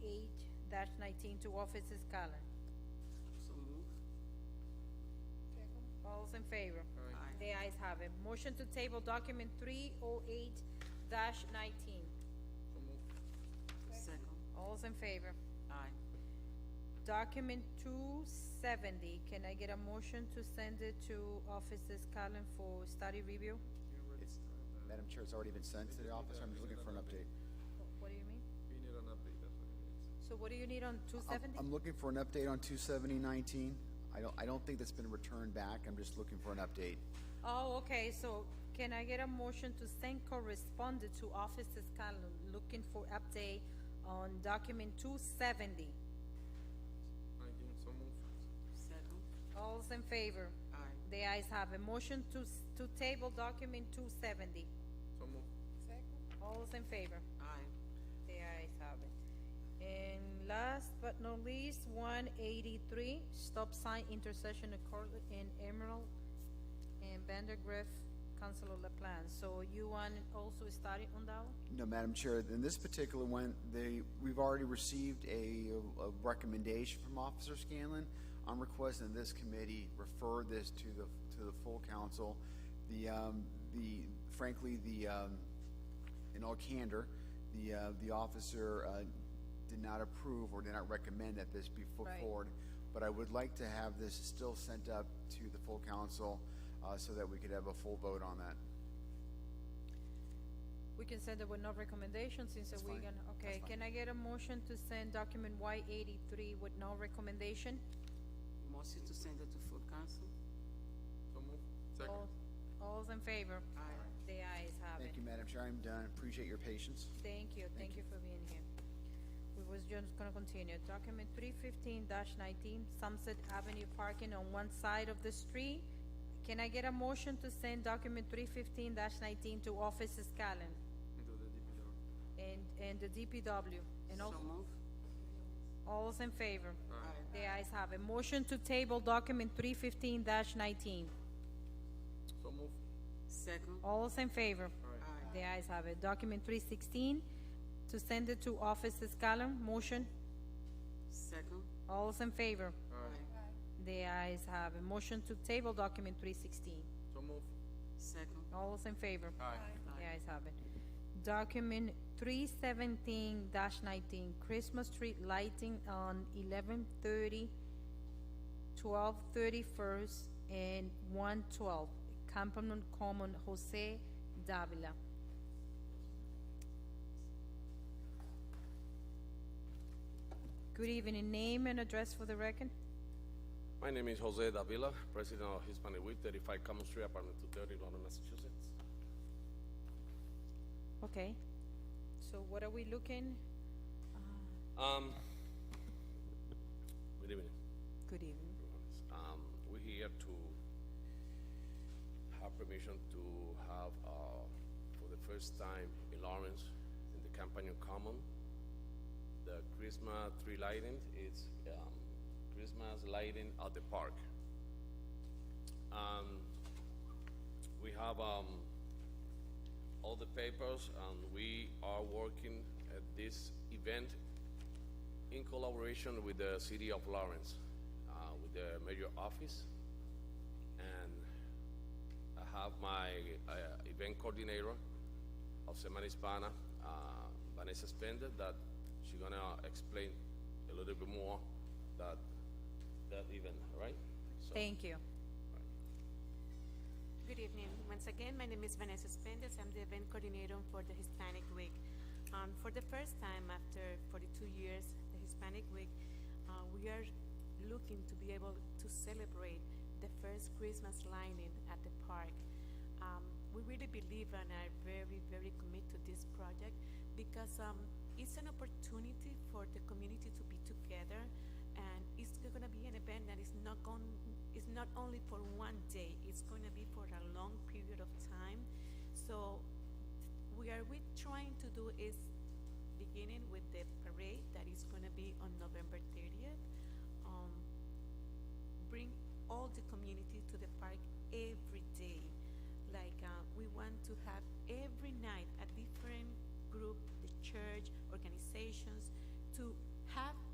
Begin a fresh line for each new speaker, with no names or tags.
nineteen to Officers Collins.
So moved.
All those in favor?
Aye.
The ayes have it. Motion to table document three oh eight nineteen.
So moved.
Second.
All those in favor?
Aye.
Document two seventy, can I get a motion to send it to Officers Collins for study review?
It's-
uh,
Madam Chair, it's already been sent to the office, I'm just looking for an update.
What do you mean?
We need an update, that's what it is.
So what do you need on two
I'm-
seventy?
I'm looking for an update on two seventy nineteen. I don't, I don't think that's been returned back, I'm just looking for an update.
Oh, okay, so can I get a motion to send correspondent to officers Collins looking for update on document two seventy?
Nineteen, so moved.
Second.
All's in favor?
Aye.
The ayes have a motion to, s- to table document two seventy.
So moved.
All's in favor?
Aye.
The ayes have it. And last but not least, one eighty-three, stop sign intersection of Cortlandt and Emerald and Vandergriff, Councilor LaPlante. So you want also started on that one?
No, Madam Chair, in this particular one, they, we've already received a, a recommendation from Officer Scanlon. I'm requesting this committee refer this to the, to the full council. The, um, the, frankly, the, um, in all candor, the, uh, the officer, uh, did not approve or did not recommend that this be put
Right.
forward. But I would like to have this still sent up to the full council, uh, so that we could have a full vote on that.
We can send it with no recommendation since we're
fine.
gonna,
That's
okay,
fine.
can I get a motion to send document Y eighty-three with no recommendation?
Motion to send it to full council.
So moved.
All,
Second.
all's in favor?
Aye.
The ayes have it.
Thank you, Madam Chair, I'm done, appreciate your patience.
Thank you, thank you for being here. We was just gonna continue. Document three fifteen nineteen, Sunset Avenue parking on one side of the street. Can I get a motion to send document three fifteen nineteen to Offices Callen
Into the DPW.
and, and the DPW? And
So
also,
move.
all's in favor?
Aye.
The ayes have it. Motion to table document three fifteen nineteen.
So moved.
Second.
All's in favor?
Aye.
Aye.
The ayes have it. Document three sixteen, to send it to Offices Callen, motion?
Second.
All's in favor?
Aye.
Aye.
The ayes have a motion to table document three sixteen.
So moved.
Second.
All those in favor?
Aye.
The ayes have it. Document three seventeen nineteen, Christmas tree lighting on 11:30, 12:31, and one twelve, Campanon Common, Jose Davila. Good evening, name and address for the record?
My name is Jose Davila, president of Hispanic Week, 35 Common Street, apartment 230, London, Massachusetts.
Okay, so what are we looking?
Um, good evening.
Good evening.
Um, we're here to have permission to have, uh, for the first time in Lawrence, in the Campanion Common, the Christmas tree lighting, it's, um, Christmas lighting at the park. Um, we have, um, all the papers, and we are working at this event in collaboration with the city of Lawrence, uh, with the mayor office. And I have my, uh, event coordinator of Semana Hispana, uh, Vanessa Spender, that she gonna explain a little bit more that, that event, all right? So-
Thank you.
Good evening. Once again, my name is Vanessa Spendes. I'm the event coordinator for the Hispanic Week. Um, for the first time after 42 years, the Hispanic Week, uh, we are looking to be able to celebrate the first Christmas lining at the park. Um, we really believe and are very, very committed to this project because um, it's an opportunity for the community to be together and it's going to be an event that is not going it's not only for one day it's going to be for a long period of time so we are we trying to do is beginning with the parade that is going to be on november 30th um, bring all the community to the park every day. Like, uh, we want to have every night a different group, the church, organizations,